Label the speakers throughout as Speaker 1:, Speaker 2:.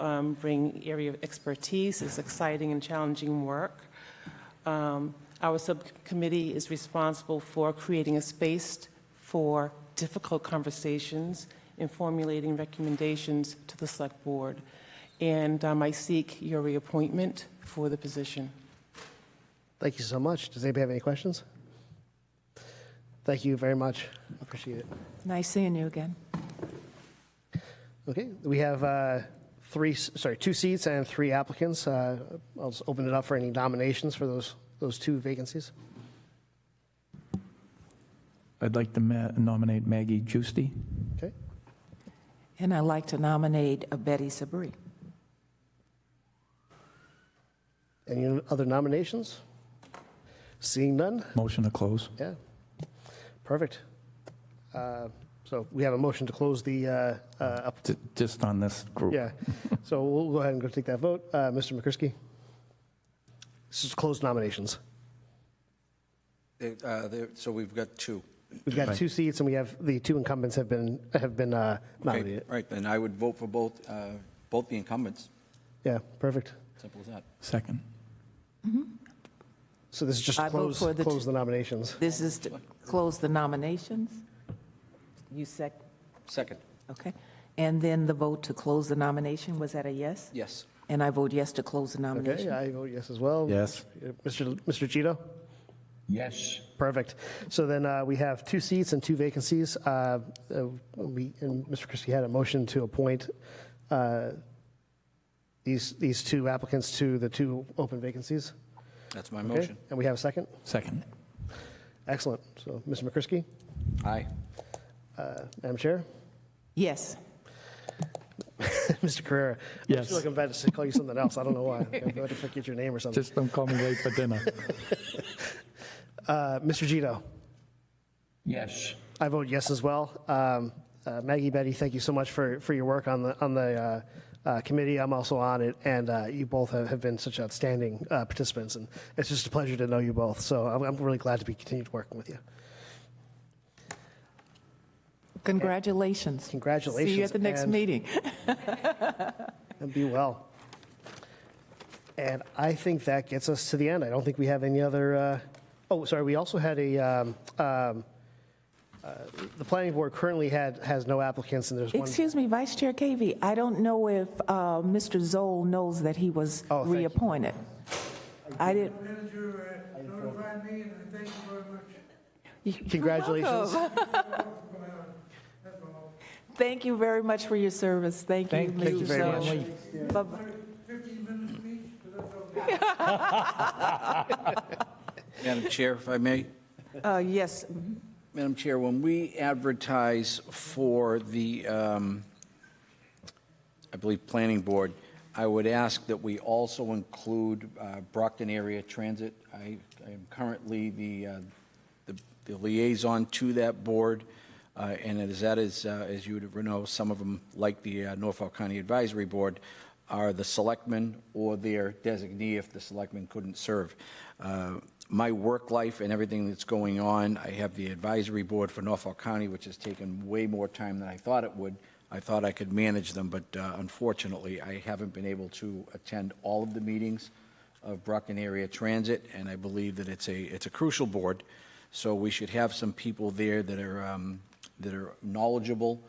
Speaker 1: um, bring area of expertise, it's exciting and challenging work. Um, Our subcommittee is responsible for creating a space for difficult conversations and formulating recommendations to the Select Board. And um, I seek your reappointment for the position.
Speaker 2: Thank you so much. Does anybody have any questions? Thank you very much. Appreciate it.
Speaker 3: Nice seeing you again.
Speaker 2: Okay, we have uh, three, s- sorry, two seats and three applicants. Uh, I'll just open it up for any nominations for those, those two vacancies.
Speaker 4: I'd like to ma- nominate Maggie Juicy.
Speaker 2: Okay,
Speaker 3: And I'd like to nominate uh, Betty Sabri.
Speaker 2: any other nominations? Seeing none?
Speaker 4: Motion to close.
Speaker 2: Yeah, perfect. Uh, So we have a motion to close the, uh, uh, up-
Speaker 4: J- Just on this group.
Speaker 2: yeah, so we'll go ahead and go take that vote. Uh, Mr. McCrisky? This is closed nominations.
Speaker 5: They- uh, they- So we've got two.
Speaker 2: We've got
Speaker 4: Right.
Speaker 2: two seats, and we have, the two incumbents have been, have been uh,
Speaker 5: Okay,
Speaker 2: nominated.
Speaker 5: Right, and I would vote for both, uh, both the incumbents,
Speaker 2: Yeah, perfect.
Speaker 5: simple as that.
Speaker 4: Second.
Speaker 2: So this is just
Speaker 3: I vote
Speaker 2: close,
Speaker 3: for the
Speaker 2: close
Speaker 3: two-
Speaker 2: the nominations.
Speaker 3: This is to close the nominations. You sec,
Speaker 5: Second,
Speaker 3: okay. And then the vote to close the nomination, was that a yes?
Speaker 5: yes.
Speaker 3: And I vote yes to close the
Speaker 2: Okay,
Speaker 3: nomination.
Speaker 2: I vote yes as well.
Speaker 4: Yes.
Speaker 2: Uh, Mr. Mr. Gito?
Speaker 6: Yes,
Speaker 2: Perfect. So then uh, we have two seats and two vacancies. Uh, uh, We, and Mr. Christie had a motion to appoint uh, these, these two applicants to the two open vacancies.
Speaker 5: That's my
Speaker 2: Okay?
Speaker 5: motion.
Speaker 2: And we have a second?
Speaker 4: Second.
Speaker 2: Excellent. So, Mr. McCrisky,
Speaker 5: Aye.
Speaker 2: uh, Madam Chair,
Speaker 3: Yes,
Speaker 2: Mr. Carrera. I
Speaker 4: Yes.
Speaker 2: feel like I'm about to call you something else. I don't know why. I'm about to forget your name or something.
Speaker 4: Just don't call me late for dinner.
Speaker 2: Uh, Mr. Gito,
Speaker 6: yes,
Speaker 2: I vote yes as well. Um, uh, Maggie, Betty, thank you so much for, for your work on the on the uh, uh, committee. I'm also on it, and uh, you both have, have been such outstanding uh, participants, and it's just a pleasure to know you both. So I'm, I'm really glad to be continued working with you.
Speaker 3: congratulations.
Speaker 2: Congratulations,
Speaker 3: See you at the next
Speaker 2: and-
Speaker 3: meeting.
Speaker 2: And be well. And I think that gets us to the end. I don't think we have any other. Uh, oh, sorry. We also had a. Um, um, uh, the planning board currently had has no applicants, and there's one.
Speaker 3: Excuse me, Vice Chair Cavey, I don't know if uh, Mr. Zoll knows that he was
Speaker 2: Oh, thank you.
Speaker 3: reappointed. I didn't.
Speaker 7: Manager uh, notified me, and I thank you very much.
Speaker 2: Congratulations.
Speaker 3: Thank you very much for your service. Thank you,
Speaker 4: Thank- thank you
Speaker 3: Mr.
Speaker 4: very
Speaker 3: Zoll.
Speaker 4: much.
Speaker 3: Bye-bye.
Speaker 7: Fifteen minutes each, but that's okay.
Speaker 5: Madam Chair, if I may?
Speaker 3: Uh, Yes,
Speaker 5: Madam Chair, when we advertise for the, um, I believe, Planning Board, I would ask that we also include uh, Brockton Area Transit. I I am currently the, uh, the- the liaison to that board, uh, and as that is, uh, as you would know, some of them, like the uh, Norfolk County Advisory Board, are the selectmen or their designee if the selectmen couldn't serve. Uh, My work life and everything that's going on, I have the advisory board for Norfolk County, which has taken way more time than I thought it would. I thought I could manage them, but uh, unfortunately, I haven't been able to attend all of the meetings of Brockton Area Transit, and I believe that it's a, it's a crucial board. So we should have some people there that are, um, that are knowledgeable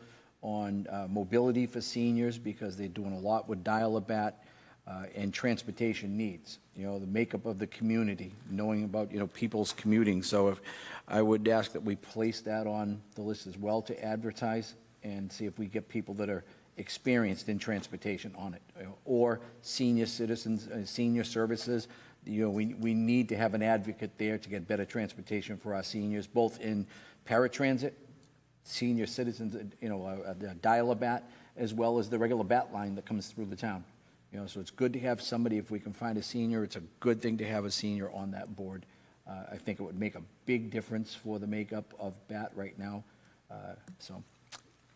Speaker 5: on uh, mobility for seniors, because they're doing a lot with dial-a-bat uh, and transportation needs, you know, the makeup of the community, knowing about, you know, people's commuting. So if, I would ask that we place that on the list as well to advertise and see if we get people that are experienced in transportation on it, you know, or senior citizens, uh, senior services. You know, we, we need to have an advocate there to get better transportation for our seniors, both in paratransit, senior citizens, uh, you know, uh, uh, the dial-a-bat, as well as the regular bat line that comes through the town. You know, so it's good to have somebody, if we can find a senior, it's a good thing to have a senior on that board. Uh, I think it would make a big difference for the makeup of bat right now. Uh, So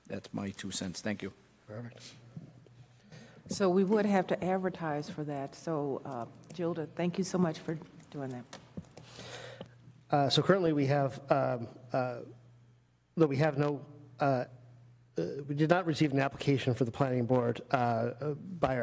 Speaker 5: that's my two cents. Thank you.
Speaker 3: so we would have to advertise for that. So, uh, Gilda, thank you so much for doing that.
Speaker 2: Uh, So currently, we have, um, uh, no, we have no uh, uh, we did not receive an application for the planning board uh, uh, by our